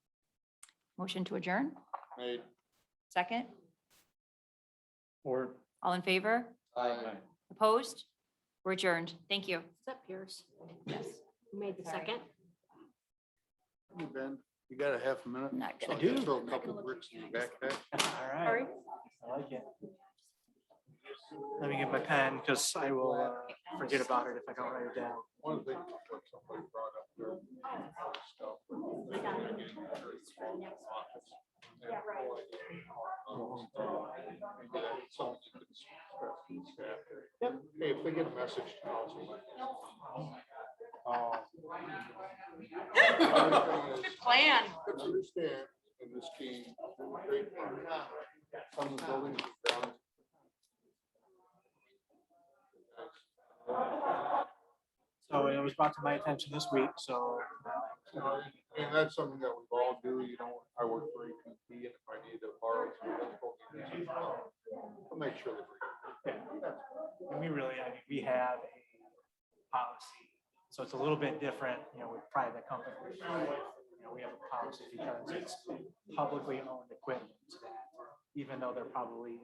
Motion to adjourn? Made. Second? Or. All in favor? Aye. Opposed? We're adjourned. Thank you. Is that Pierce? Yes. Who made the Sorry. second? Hey, Ben, you got a half a minute? Not So I good. can throw a couple bricks in your backpack. All right. I like it. Let me get my pen because I will uh, forget about it if I don't write it down. One thing that somebody brought up there, stuff, but they were getting very small pockets. They have no idea how it's done. Maybe that's something you could stress to the staff. Hey, if they get a message Uh, to council. Good Plan. Understand in this game, there's a great part. Some of the buildings are down. So it was brought to my attention this week, so You know, And that's something that we all do, you know, I work for AT&T, and if I need to borrow some difficult, I'll um, make sure that. yeah. And we really, I mean, we have a policy. So it's a little bit different, you know, with private companies. right? You know, we have a policy because it's publicly owned equipment that even though they're probably